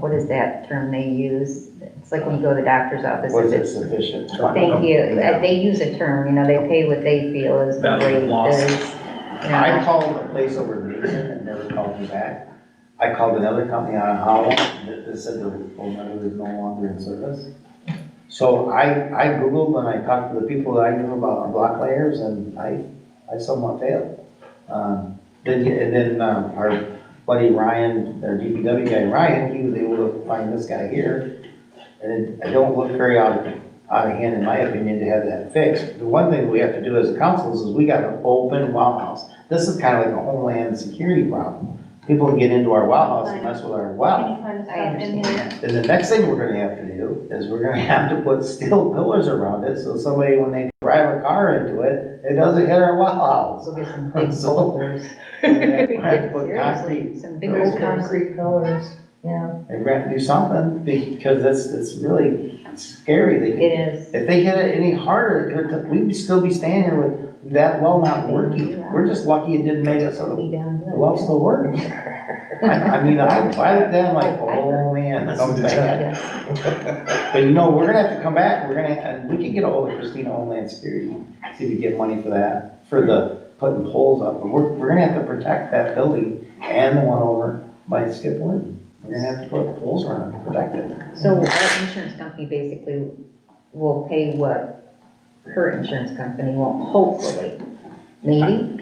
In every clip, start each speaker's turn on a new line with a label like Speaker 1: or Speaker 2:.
Speaker 1: what is that term they use? It's like when you go to the doctor's office. if
Speaker 2: Was it
Speaker 1: it's-
Speaker 2: sufficient?
Speaker 1: Thank you. Uh, They use a term, you know, they pay what they feel is the
Speaker 3: Value
Speaker 1: rate
Speaker 3: loss.
Speaker 1: is. you know,
Speaker 2: I called the place over Mason and never called me back. I called another company out of Howell that that said the phone number was no longer in service. So I, I Googled and I talked to the people that I knew about block layers and I, I somewhat failed. Um, Then, he- and then um, our buddy Ryan, their DPW guy Ryan, he was able to find this guy here. And it- I don't look very out of out of hand, in my opinion, to have that fixed. The one thing we have to do as a council is we got an open wow house. This is kind of like a homeland security problem. People can get into our wow house and mess with our wow.
Speaker 1: I understand that.
Speaker 2: And the next thing we're gonna have to do is we're gonna have to put steel pillars around it, so somebody, when they drive a car into it, it doesn't hit our wow house.
Speaker 1: So get some big
Speaker 2: So-
Speaker 1: boulders.
Speaker 2: And then we're gonna have to put concrete.
Speaker 1: Seriously, some big boulders.
Speaker 4: pillars, yeah.
Speaker 2: They're gonna have to do something, because it's, it's really scary. They
Speaker 1: It is.
Speaker 2: If they hit it any harder, it could- we'd still be standing here with that well not working. We're just lucky it didn't make it so the
Speaker 1: Be down good.
Speaker 2: well still worked. I, I mean, I, I looked at it like, oh man, that's bad.
Speaker 1: Yeah.
Speaker 2: But you know, we're gonna have to come back, we're gonna, and we can get ahold of Christina Homeland Security, see if we get money for that, for the putting poles up. But we're, we're gonna have to protect that building and the one over by Skip Lynn. We're gonna have to put poles around it, protect it.
Speaker 1: So our insurance company basically will pay what her insurance company won't, hopefully. Maybe?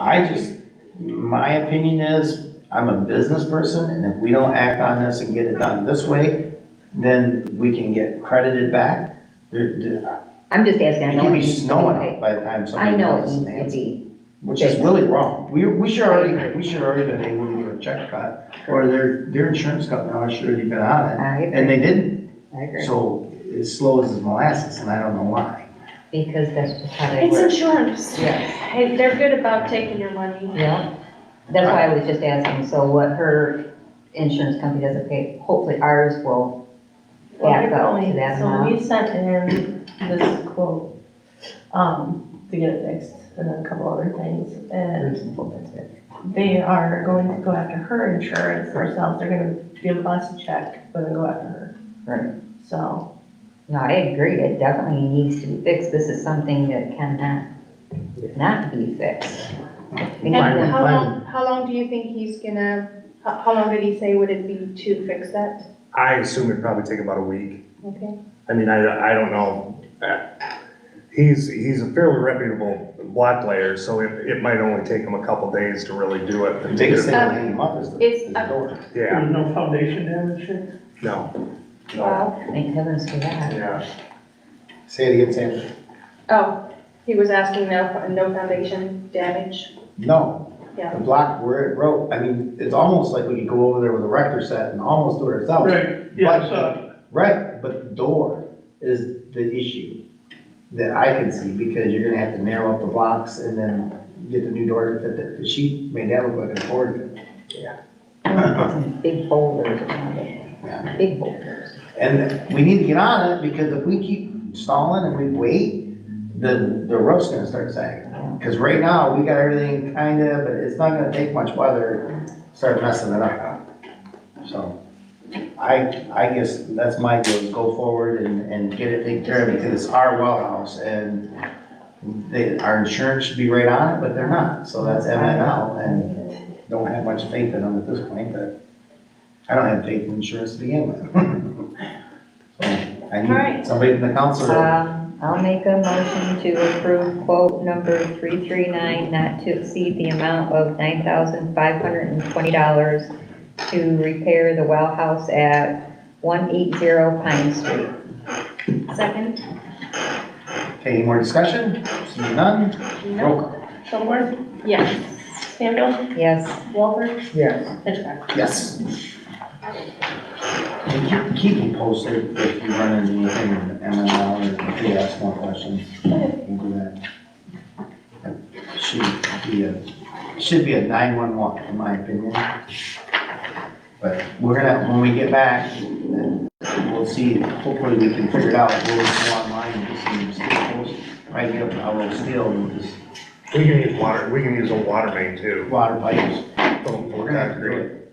Speaker 2: I just, my opinion is, I'm a business person, and if we don't act on this and get it done this way, then we can get credited back. There- there-
Speaker 1: I'm just asking. I
Speaker 2: It
Speaker 1: know
Speaker 2: can
Speaker 1: it
Speaker 2: be
Speaker 1: needs to be
Speaker 2: snowing
Speaker 1: paid.
Speaker 2: out by the time
Speaker 1: I
Speaker 2: somebody
Speaker 1: know it
Speaker 2: calls and
Speaker 1: needs to
Speaker 2: answers,
Speaker 1: be.
Speaker 2: which is really wrong. We, we should already, we should already been able to get a check cut, or their, their insurance company already should have been on it,
Speaker 1: I
Speaker 2: and
Speaker 1: agree,
Speaker 2: they didn't.
Speaker 1: I agree.
Speaker 2: So it's slow as molasses, and I don't know why.
Speaker 1: Because that's just how they
Speaker 4: It's
Speaker 1: work.
Speaker 4: insurance.
Speaker 1: Yeah,
Speaker 4: Hey, they're good about taking your money.
Speaker 1: yeah. That's why I was just asking, so what her insurance company doesn't pay, hopefully ours will back up to that
Speaker 5: So
Speaker 1: amount.
Speaker 5: we sent him this quote, um, to get it fixed and then a couple other things. And
Speaker 1: Reasonable, that's it.
Speaker 5: they are going to go after her insurance themselves. They're gonna give us a check, but then go after her.
Speaker 1: Right.
Speaker 5: So,
Speaker 1: No, I agree, it definitely needs to be fixed, this is something that cannot not be fixed. We
Speaker 4: And
Speaker 1: need to-
Speaker 2: Fine.
Speaker 4: how long, how long do you think he's gonna, how, how long did he say would it be to fix that?
Speaker 3: I assume it'd probably take about a week.
Speaker 4: Okay,
Speaker 3: I mean, I, I don't know. He's, he's a fairly reputable block layer, so it, it might only take him a couple days to really do it.
Speaker 2: The biggest thing
Speaker 4: Um,
Speaker 2: in the month is the,
Speaker 4: it's
Speaker 2: is the
Speaker 4: a-
Speaker 2: door.
Speaker 3: Yeah,
Speaker 6: There's no foundation damage here?
Speaker 3: no, no,
Speaker 4: wow.
Speaker 1: Thank heavens for that.
Speaker 3: yeah.
Speaker 2: Say it again, Sandra.
Speaker 4: Oh, he was asking no, no foundation damage?
Speaker 2: No.
Speaker 4: Yeah.
Speaker 2: The block where it broke, I mean, it's almost like we could go over there with a rector set and almost do it ourselves.
Speaker 6: Right, yeah, I saw it.
Speaker 2: Right, but the door is the issue that I can see, because you're gonna have to narrow up the blocks and then get the new door to fit that, because she made that look like a board.
Speaker 1: Some Big boulders around it, big boulders.
Speaker 2: And we need to get on it, because if we keep stalling and we wait, then the roof's gonna start sagging. Because right now, we got everything kinda, but it's not gonna take much weather, to start messing it up. So, I, I guess that's my deal, is go forward and, and get it taken care of, because it's our well house, and they, our insurance should be right on it, but they're not, so that's MNL, and don't have much faith in them at this point, but I don't have faith in insurance to begin with. So, I need
Speaker 4: Alright.
Speaker 2: somebody from the council to
Speaker 1: Um, I'll make a motion to approve quote number three three nine, not to exceed the amount of nine thousand five hundred and twenty dollars to repair the well house at one eight zero Pine Street.
Speaker 4: Second?
Speaker 2: Okay, any more discussion? Seeing none? Roll call.
Speaker 5: Shuttleworth,
Speaker 4: Yes.
Speaker 5: Campbell,
Speaker 1: Yes,
Speaker 5: Walter,
Speaker 6: Yes.
Speaker 5: Hitchcock.
Speaker 2: Yes. And you keep me posted if you run into anything with MML or if you ask more questions. We'll do that. Should be a, should be a nine-one-one, in my opinion. But we're gonna, when we get back, then we'll see, hopefully we can figure it out, we'll just go online and just see if it's posted. Right here, I will steal and just
Speaker 3: We can use water, we can use a water main too.
Speaker 2: water pipes.
Speaker 3: Don't-
Speaker 2: Oh, We're gonna have to do it.